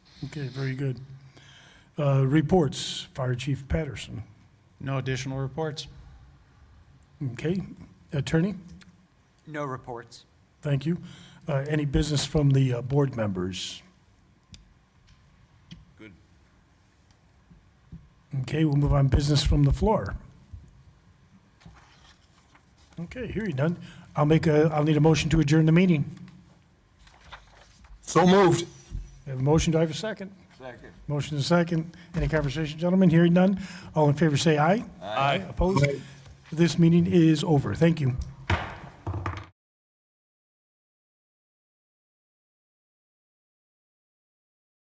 Okay, very good. Uh, Reports, Fire Chief Patterson. No additional reports. Okay, Attorney, No reports. thank you. Uh, Any business from the uh, board members? Good. Okay, we'll move on, business from the floor. Okay, hearing none. I'll make a, I'll need a motion to adjourn the meeting. So moved. I Have a motion, do I have a second? Second. Motion is second. Any conversation, gentlemen? Hearing none. All in favor, say aye. Aye. Opposed? This meeting is over. Thank you.